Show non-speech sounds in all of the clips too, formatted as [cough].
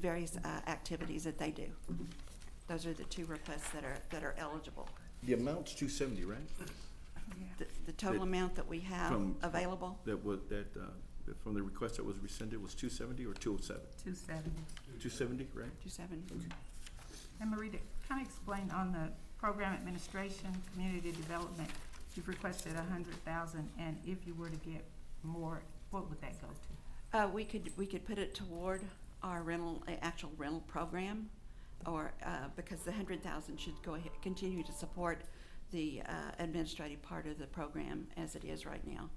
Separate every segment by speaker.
Speaker 1: various uh, activities that they do. Those are the two requests that are, that are eligible.
Speaker 2: The amount's two seventy, right?
Speaker 1: The, the total
Speaker 2: That-
Speaker 1: amount that we have
Speaker 2: From-
Speaker 1: available,
Speaker 2: That was, that, uh, that from the request that was rescinded was two seventy or two oh seven?
Speaker 3: Two seventy.
Speaker 2: Two seventy, right?
Speaker 1: two seven.
Speaker 3: And Marita, kind of explain on the program administration, community development, you've requested a hundred thousand, and if you were to get more, what would that go to?
Speaker 1: Uh, we could, we could put it toward our rental, uh, actual rental program, or, uh, because the hundred thousand should go ahead, continue to support the, uh, administrative part of the program as it is right now.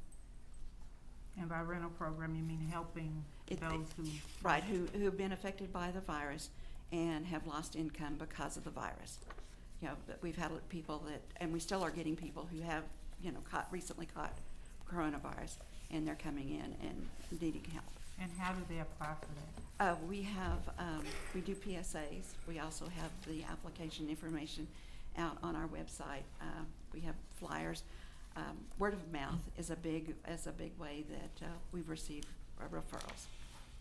Speaker 3: And by rental program, you mean helping
Speaker 1: It-
Speaker 3: those who,
Speaker 1: Right, who, who have been affected by the virus and have lost income because of the virus. You know, but we've had people that, and we still are getting people who have, you know, caught, recently caught coronavirus, and they're coming in and needing help.
Speaker 3: and how do they apply for that?
Speaker 1: Uh, we have, um, we do PSAs, we also have the application information out on our website, uh, we have flyers. Um, word of mouth is a big, is a big way that, uh, we receive uh, referrals,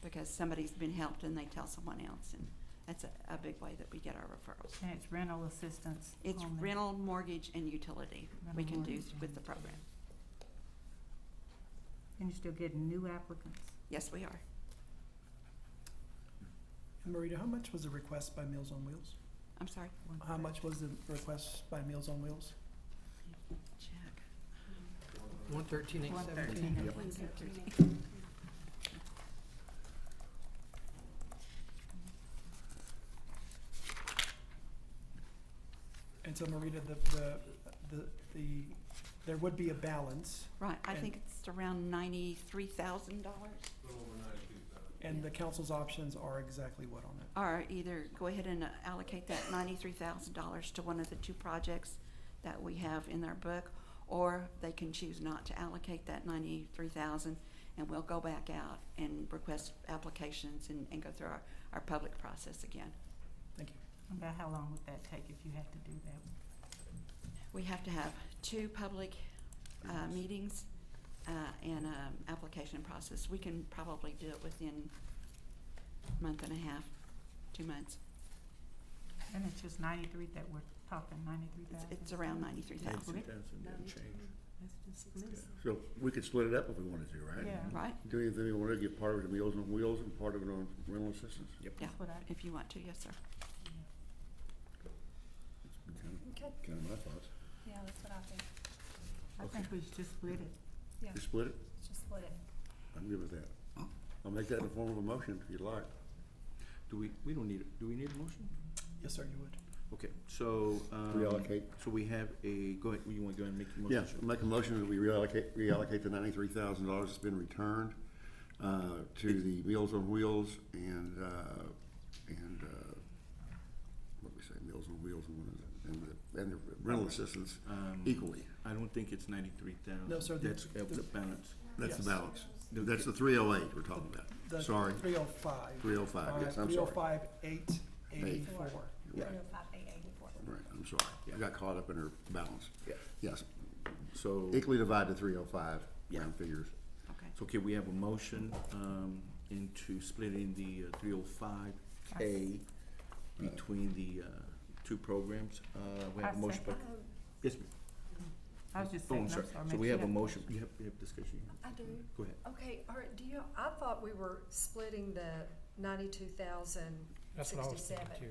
Speaker 1: because somebody's been helped and they tell someone else, and that's a, a big way that we get our referrals.
Speaker 3: And it's rental assistance
Speaker 1: It's
Speaker 3: only.
Speaker 1: rental, mortgage, and utility we
Speaker 3: Rental,
Speaker 1: can do
Speaker 3: mortgage,
Speaker 1: with
Speaker 3: and
Speaker 1: the program.
Speaker 3: And you're still getting new applicants?
Speaker 1: Yes, we are.
Speaker 4: And Marita, how much was the request by Meals on Wheels?
Speaker 1: I'm sorry,
Speaker 3: One
Speaker 4: How
Speaker 3: question.
Speaker 4: much was the request by Meals on Wheels?
Speaker 1: check.
Speaker 5: One thirteen eight
Speaker 3: One
Speaker 5: seventeen.
Speaker 3: thirteen.
Speaker 2: Yep.
Speaker 3: One thirteen.
Speaker 4: And so Marita, the, the, the, the, there would be a balance,
Speaker 1: Right, I
Speaker 4: And-
Speaker 1: think it's around ninety-three thousand dollars.
Speaker 4: and the council's options are exactly what on it?
Speaker 1: Or either go ahead and uh, allocate that ninety-three thousand dollars to one of the two projects that we have in our book, or they can choose not to allocate that ninety-three thousand, and we'll go back out and request applications and, and go through our, our public process again.
Speaker 4: Thank you.
Speaker 3: About how long would that take if you had to do that?
Speaker 1: We have to have two public, uh, meetings, uh, and, um, application process. We can probably do it within a month and a half, two months.
Speaker 3: And it's just ninety-three that we're talking, ninety-three
Speaker 1: It's,
Speaker 3: thousand?
Speaker 1: it's around ninety-three thousand,
Speaker 2: Two thousand, yeah, change.
Speaker 6: So we could split it up if we wanted to, right?
Speaker 3: Yeah,
Speaker 1: right?
Speaker 6: Do you, do you wanna get part of it on Meals on Wheels and part of it on rental assistance?
Speaker 3: that's what I,
Speaker 1: If you want to, yes, sir.
Speaker 6: That's Kind of- kind of my thoughts.
Speaker 7: Yeah, that's what I think.
Speaker 3: I think we should just split it.
Speaker 6: You split it?
Speaker 7: Just split it.
Speaker 6: I'm good with that. I'll make that in the form of a motion if you'd like.
Speaker 2: Do we, we don't need, a- do we need a motion?
Speaker 4: Yes, sir, you would.
Speaker 2: Okay, so, um.
Speaker 6: Reallocate.
Speaker 2: So we have a, go ahead, you wanna go ahead and make your
Speaker 6: Yeah,
Speaker 2: motion?
Speaker 6: I'll make a motion that we reallocate, reallocate the ninety-three thousand dollars that's been returned, uh, to the Meals on Wheels and, uh, and, uh, what we say, Meals on Wheels and one of the, and the, and the rental assistance
Speaker 2: Um,
Speaker 6: equally.
Speaker 2: I don't think it's ninety-three thousand.
Speaker 4: No, sir, the-
Speaker 2: That's, uh, the
Speaker 4: the-
Speaker 2: balance.
Speaker 6: That's the
Speaker 4: Yes.
Speaker 6: balance. That's the three oh eight we're talking
Speaker 4: The
Speaker 6: about. Sorry.
Speaker 4: Three oh five.
Speaker 6: 305, yes, I'm sorry.
Speaker 4: Three oh five, eight eighty-four.
Speaker 6: Right,
Speaker 7: Eight. Three oh five eight eighty-four.
Speaker 6: right, I'm sorry. I got caught up in her balance.
Speaker 2: Yeah.
Speaker 6: Yes,
Speaker 2: So,
Speaker 6: equally divide the three oh five,
Speaker 2: Yeah.
Speaker 6: round figures.
Speaker 1: Okay.
Speaker 2: so, okay, we have a motion, um, into splitting the three oh five K between the, uh, two programs. Uh, we have a
Speaker 3: I
Speaker 2: motion by,
Speaker 3: second.
Speaker 8: Um,
Speaker 2: yes, ma'am.
Speaker 3: I was just
Speaker 2: Oh,
Speaker 3: saying,
Speaker 2: I'm
Speaker 3: I'm sorry.
Speaker 2: sorry. So
Speaker 3: ma'am,
Speaker 2: we
Speaker 3: you
Speaker 2: have a
Speaker 3: have-
Speaker 2: motion, you have, you have discussion.
Speaker 8: I do.
Speaker 2: Go ahead.
Speaker 8: Okay, all right, do you, I thought we were splitting the ninety-two thousand,
Speaker 5: That's what I was thinking too.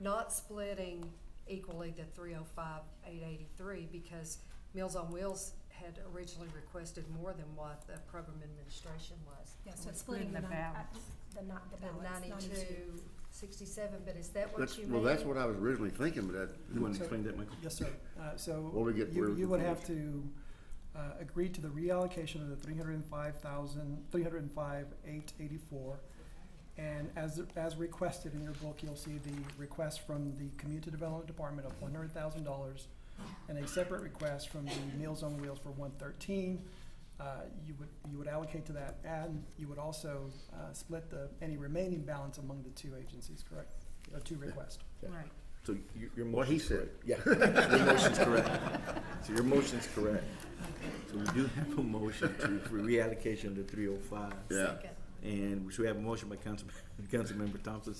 Speaker 8: not splitting equally the three oh five, eight eighty-three, because Meals on Wheels had originally requested more than what the program administration was.
Speaker 7: Yeah,
Speaker 3: We're
Speaker 7: so it's splitting
Speaker 3: splitting
Speaker 7: the
Speaker 3: the
Speaker 7: nine, uh,
Speaker 3: balance.
Speaker 7: the not, the
Speaker 8: The
Speaker 7: balance, ninety-two.
Speaker 8: ninety-two, sixty-seven, but is that what
Speaker 6: That's,
Speaker 8: you mean?
Speaker 6: well, that's what I was originally thinking, but that,
Speaker 2: You wanna explain that, Michael?
Speaker 4: Yes, sir. Uh,
Speaker 6: Well,
Speaker 4: so
Speaker 6: we get-
Speaker 4: you,
Speaker 6: we're-
Speaker 4: you would have to, uh, agree to the reallocation of the three hundred and five thousand, three hundred and five, eight eighty-four. And as, as requested in your book, you'll see the request from the Community Development Department of one hundred thousand dollars and a separate request from the Meals on Wheels for one thirteen. Uh, you would, you would allocate to that and you would also, uh, split the, any remaining balance among the two agencies, correct? Or two requests.
Speaker 3: Right.
Speaker 2: So your, your motion.
Speaker 6: what he said.
Speaker 2: Yeah, your motion's correct. So your motion's correct. So we do have a motion to, for reallocation of the three oh five.
Speaker 6: Yeah.
Speaker 8: Second.
Speaker 2: And so we have a motion by Council, [laughs] Councilmember Thompson,